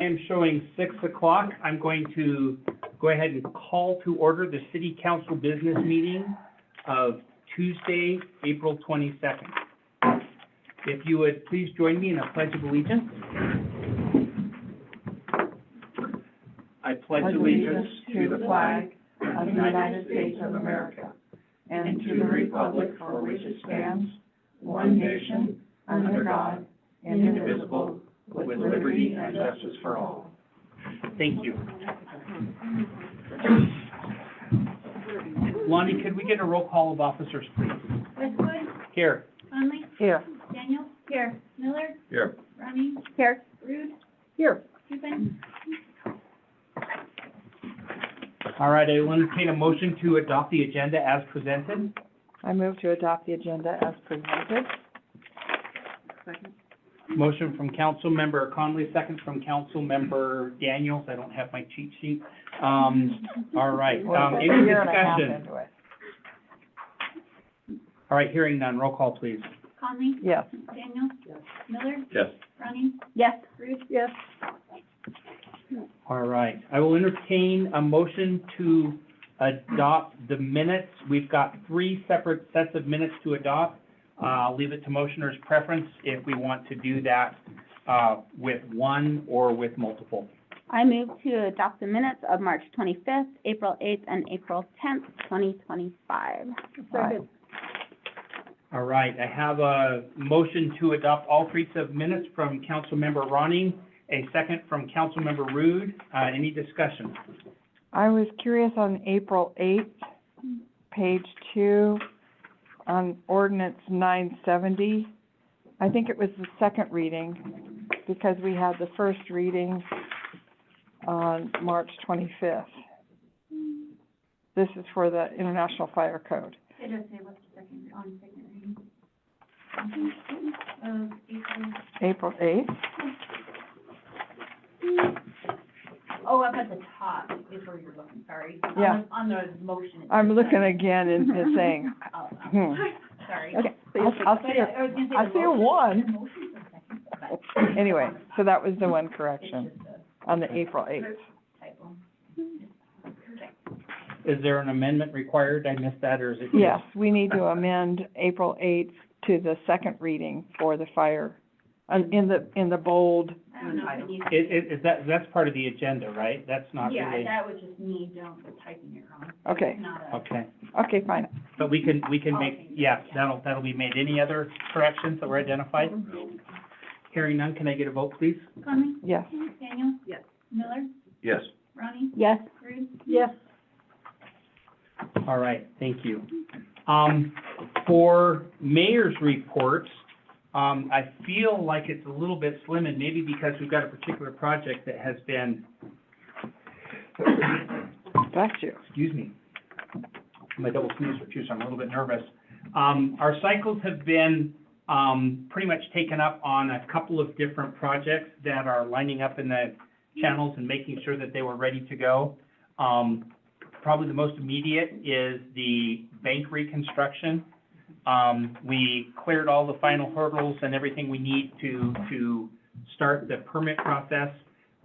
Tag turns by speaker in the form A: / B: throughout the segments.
A: I am showing six o'clock. I'm going to go ahead and call to order the city council business meeting of Tuesday, April twenty-second. If you would please join me in a pledge of allegiance. I pledge allegiance to the flag
B: of the United States of America and to the republic for which it stands, one nation, under God, indivisible, with liberty and justice for all.
A: Thank you. Lonnie, could we get a roll call of officers, please?
C: Westwood,
A: Here.
C: Conley,
B: Here.
C: Daniel. Here. Miller.
D: Here.
C: Ronnie. Here. Rude,
B: Here.
C: Hupin.
A: All right, I will entertain a motion to adopt the agenda as presented.
B: I move to adopt the agenda as presented.
A: Motion from Councilmember Conley, second from Councilmember Daniels. I don't have my cheat sheet. Um, all right, um, any
B: We're a year and a half
A: discussion?
B: into it.
A: All right, hearing none, roll call, please.
C: Conley,
B: Yes.
C: Daniel. Miller,
D: Yes.
C: Ronnie,
B: Yes.
C: Rude,
B: Yes.
A: All right, I will entertain a motion to adopt the minutes. We've got three separate sets of minutes to adopt. Uh, I'll leave it to motioners' preference if we want to do that, uh, with one or with multiple.
E: I move to adopt the minutes of March twenty-fifth, April eighth, and April tenth, twenty twenty-five.
B: Second.
A: All right, I have a motion to adopt all three sets of minutes from Councilmember Ronning, a second from Councilmember Rude. Uh, any discussion?
B: I was curious on April eighth, page two, on ordinance nine seventy. I think it was the second reading, because we had the first reading on March twenty-fifth. This is for the International Fire Code.
C: it does say what's the second, on second reading. Of April,
B: April eighth,
C: oh, up at the top is where you're looking, sorry. On the-
B: Yeah.
C: On the motion. it
B: I'm
C: says
B: looking
C: second.
B: again and and saying,
C: Oh,
B: hmm.
C: sorry.
B: Okay, I'll, I'll see
C: I was gonna say
B: I
C: the
B: see a
C: motion-
B: one.
C: the motion's the second, but
B: it. Anyway, so that was the one
C: it's
B: correction
C: just a
B: on the April eighth.
C: typo.
B: Mm-hmm.
A: Is there an amendment required? I missed that, or is it?
B: Yes, we need to amend April eighth to the second reading for the fire, uh, in the, in the bold,
C: I don't know if it needs to be-
A: It, it, is that, that's part of the agenda, right? That's not
C: Yeah,
A: really,
C: that was just me down, typing it wrong.
B: okay,
C: It's Not a,
A: okay.
B: okay, fine.
A: But we can, we can make,
C: Okay.
A: yeah, that'll, that'll be made. Any other corrections that were identified? Hearing none, can I get a vote, please?
C: Conley,
B: Yes,
C: Daniel? Yes. Miller,
D: Yes.
C: Ronnie,
E: Yes,
C: Rude?
B: Yes.
A: All right, thank you. Um, for mayor's reports, um, I feel like it's a little bit slim, and maybe because we've got a particular project that has been,
B: bless you.
A: excuse me, my double sneezer too, so I'm a little bit nervous. Um, our cycles have been, um, pretty much taken up on a couple of different projects that are lining up in the channels and making sure that they were ready to go. Um, probably the most immediate is the bank reconstruction. Um, we cleared all the final hurdles and everything we need to, to start the permit process.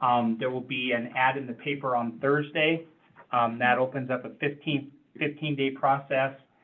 A: Um, there will be an ad in the paper on Thursday. Um, that opens up a 15 15 day process.